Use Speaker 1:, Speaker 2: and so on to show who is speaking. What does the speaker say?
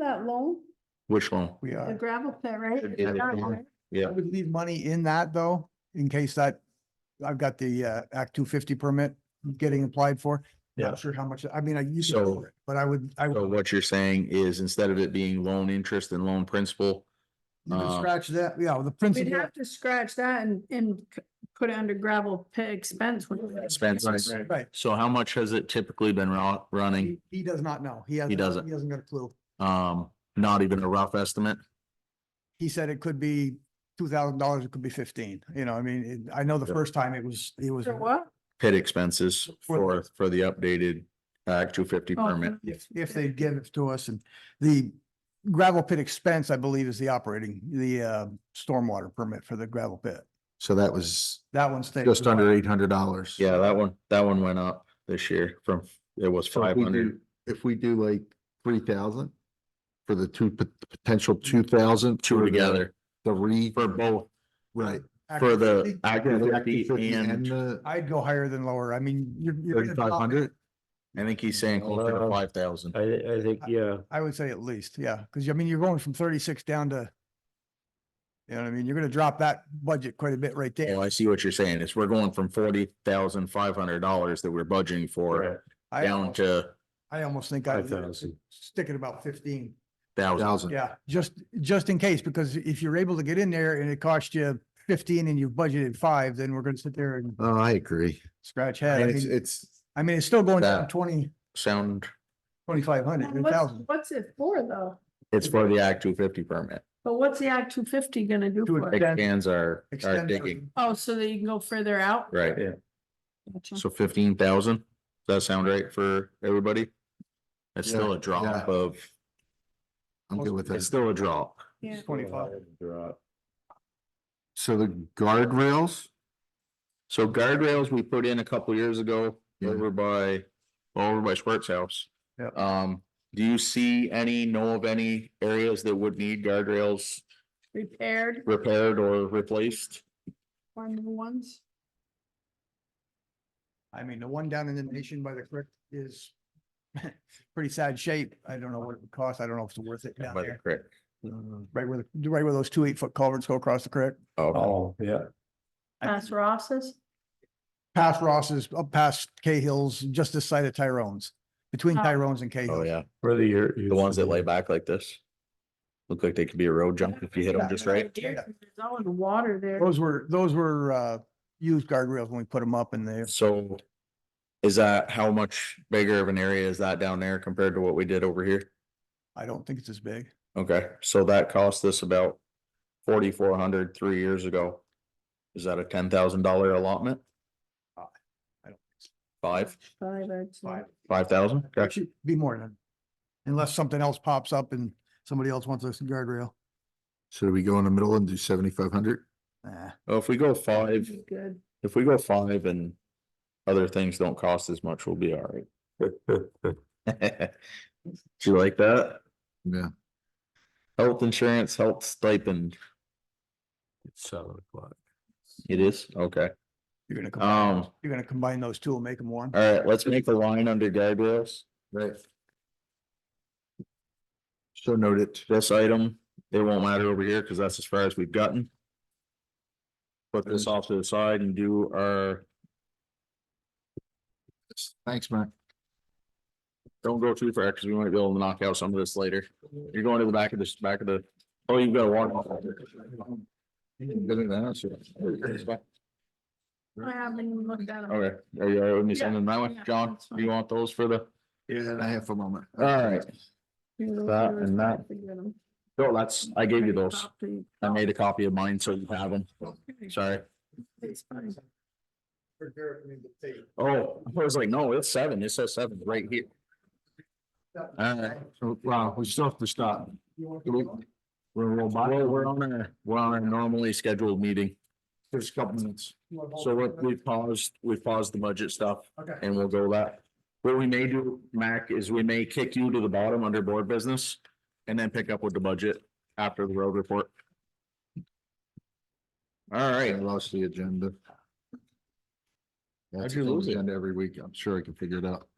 Speaker 1: loan,
Speaker 2: Which loan?
Speaker 3: We
Speaker 1: the
Speaker 3: are.
Speaker 1: gravel pit, right?
Speaker 2: Should be
Speaker 1: It's
Speaker 2: the
Speaker 1: not,
Speaker 2: loan.
Speaker 1: right?
Speaker 2: Yeah.
Speaker 3: I would leave money in that though, in case that, I've got the uh Act two fifty permit getting applied for.
Speaker 2: Mm-hmm. Yeah.
Speaker 3: Not sure how much, I mean, I used to,
Speaker 2: So-
Speaker 3: cover it, but I would, I
Speaker 2: So
Speaker 3: would
Speaker 2: what you're saying is instead of it being loan interest and loan principal,
Speaker 3: you can
Speaker 2: uh,
Speaker 3: scratch that, yeah, the
Speaker 1: We'd
Speaker 3: principal.
Speaker 1: have to scratch that and, and c- put it under gravel pit expense. wouldn't we?
Speaker 2: expenses.
Speaker 3: Right,
Speaker 2: So how much has it typically been ro- running?
Speaker 3: he, he does not know. He has.
Speaker 2: doesn't.
Speaker 3: He hasn't got a clue.
Speaker 2: Um, not even a rough estimate?
Speaker 3: He said it could be two thousand dollars, it could be fifteen, you know, I mean, it- I know the
Speaker 2: Yeah.
Speaker 3: first time it was, it was.
Speaker 1: For what?
Speaker 2: Pit expenses for,
Speaker 3: For-
Speaker 2: for the updated uh, Act two fifty
Speaker 1: Oh,
Speaker 2: permit.
Speaker 3: If, if they give it to us and the gravel pit expense, I believe, is the operating, the uh stormwater permit for the gravel pit.
Speaker 4: So that was
Speaker 3: That one stays.
Speaker 4: just under eight hundred dollars.
Speaker 2: Yeah, that one, that one went up this year from, it was
Speaker 4: So if
Speaker 2: five
Speaker 4: we
Speaker 2: hundred.
Speaker 4: do- If we do like three thousand for the two, pot- potential two thousand.
Speaker 2: Two together
Speaker 4: The re,
Speaker 2: for both,
Speaker 4: right.
Speaker 2: for the
Speaker 3: Actually,
Speaker 2: Act
Speaker 4: Yeah, the
Speaker 2: two
Speaker 4: Act
Speaker 2: fifty
Speaker 4: 250
Speaker 2: and,
Speaker 4: the
Speaker 3: I'd go higher than lower. I mean, you're. you're in the top-
Speaker 4: Thirty-five hundred?
Speaker 2: I think he's saying closer to
Speaker 5: Uh,
Speaker 2: five thousand.
Speaker 5: I, I think, yeah,
Speaker 3: I would say at least, yeah, because I mean, you're going from thirty-six down to. You know what I mean? You're gonna drop that budget quite a bit right
Speaker 2: Oh,
Speaker 3: there.
Speaker 2: I see what you're saying. Is we're going from forty thousand five hundred dollars that we're budgeting for
Speaker 5: right,
Speaker 3: I
Speaker 2: down
Speaker 3: almost-
Speaker 2: to
Speaker 3: I almost think
Speaker 5: five
Speaker 3: I'd
Speaker 5: thousand.
Speaker 3: stick at about fifteen.
Speaker 2: thousand.
Speaker 4: Thousand.
Speaker 3: Yeah, just, just in case, because if you're able to get in there and it costs you fifteen and you've budgeted five, then we're gonna sit there and
Speaker 4: Oh, I agree.
Speaker 3: scratch head. I
Speaker 4: And it's,
Speaker 3: mean,
Speaker 4: it's,
Speaker 3: I mean, it's still going down
Speaker 2: That-
Speaker 3: twenty,
Speaker 2: Sound,
Speaker 3: twenty-five hundred, a
Speaker 1: What's,
Speaker 3: thousand.
Speaker 1: what's it for though?
Speaker 2: it's for the Act two fifty permit.
Speaker 1: But what's the Act two fifty gonna do for
Speaker 3: To
Speaker 1: it?
Speaker 3: affect- Extend-
Speaker 2: Expands our, our
Speaker 3: Extend
Speaker 2: digging,
Speaker 1: Oh, so that you can go further out?
Speaker 2: right?
Speaker 5: Yeah.
Speaker 1: Gotcha.
Speaker 2: So fifteen thousand, does that sound right for everybody? It's
Speaker 4: Yeah,
Speaker 2: still a
Speaker 4: yeah.
Speaker 2: drop of,
Speaker 4: I'm good with
Speaker 2: it's
Speaker 4: that.
Speaker 2: still a drop.
Speaker 1: Yeah.
Speaker 3: Twenty-five.
Speaker 4: So the guardrails,
Speaker 2: So guardrails we put in a couple years ago
Speaker 4: Yeah.
Speaker 2: over by, over by Squirt's house.
Speaker 3: Yep.
Speaker 2: Um, do you see any, know of any areas that would need guardrails
Speaker 1: Repaired
Speaker 2: repaired or replaced?
Speaker 1: or new ones?
Speaker 3: I mean, the one down in the
Speaker 2: Mm.
Speaker 3: nation by the creek is pretty sad shape. I don't know what it would cost. I don't know if it's worth it down
Speaker 2: By the
Speaker 3: there.
Speaker 2: creek.
Speaker 3: Right where, the right where those two eight foot culverts go across the creek.
Speaker 2: Oh,
Speaker 5: Oh, yeah,
Speaker 3: I-
Speaker 1: Past Ross's?
Speaker 3: Past Ross's, up past Cahill's, just this side of Tyrone's, between
Speaker 1: Oh.
Speaker 3: Tyrone's and
Speaker 2: oh,
Speaker 3: Cahill.
Speaker 2: yeah.
Speaker 5: where the year.
Speaker 2: The ones that lay back like this. Look like they could be a road jump if you hit them just right.
Speaker 1: Deer, There's always water there.
Speaker 3: Those were, those were, uh, used guardrails when we put them up in there.
Speaker 2: So is that, how much bigger of an area is that down there compared to what we did over here?
Speaker 3: I don't think it's as big.
Speaker 2: Okay, so that cost us about forty-four hundred three years ago. Is that a ten thousand dollar allotment?
Speaker 3: Uh, I don't
Speaker 2: Five,
Speaker 1: Five, I'd say.
Speaker 3: Five.
Speaker 2: five thousand?
Speaker 3: It should Be more than, unless something else pops up and somebody else wants a guardrail.
Speaker 4: should we go in the middle and do seventy-five hundred?
Speaker 3: Nah.
Speaker 2: Well, if we go
Speaker 1: That'd
Speaker 2: five,
Speaker 1: be Good.
Speaker 2: if we go five and other things don't cost as much, we'll be all right. Do you like that?
Speaker 4: Yeah.
Speaker 2: Health insurance, health stipend.
Speaker 5: It's Seven o'clock.
Speaker 2: It is, okay.
Speaker 3: You're gonna,
Speaker 2: Um,
Speaker 3: combine-
Speaker 2: all
Speaker 3: you're gonna combine those two and make them one.
Speaker 2: right, let's make the line under guardrails.
Speaker 4: Right. So noted.
Speaker 2: this item, it won't matter over here because that's as far as we've gotten. Put this off to the side and do our,
Speaker 4: Thanks, Mac.
Speaker 2: don't go too far because we might be able to knock out some of this later. You're going to the back of this, back of the, oh, you've got a water.
Speaker 1: I haven't even looked at them.
Speaker 2: Okay, are you, all right with me sending that one?
Speaker 1: Yeah,
Speaker 2: John,
Speaker 1: that's
Speaker 2: do you want those for the?
Speaker 4: Yeah, I have a moment.
Speaker 2: All right, that
Speaker 1: That
Speaker 2: and that. no, that's, I gave you those. I made a copy of mine, so you have them. Sorry.
Speaker 1: It's fine.
Speaker 2: Oh, I was like, no, it's seven. It says seven right here. All right.
Speaker 4: So, Wow, we still have to stop.
Speaker 2: We're, well, we're on our, we're on our normally scheduled meeting,
Speaker 4: There's a couple minutes.
Speaker 2: so we- we paused, we paused the budget stuff
Speaker 3: Okay.
Speaker 2: and we'll go that. What we may do, Mac, is we may kick you to the bottom under board business and then pick up with the budget after the road report. All
Speaker 4: I
Speaker 2: right,
Speaker 4: lost the agenda.
Speaker 2: How'd
Speaker 4: That's
Speaker 2: you
Speaker 4: the
Speaker 2: lose it?
Speaker 4: agenda Every week, I'm sure I can figure it out.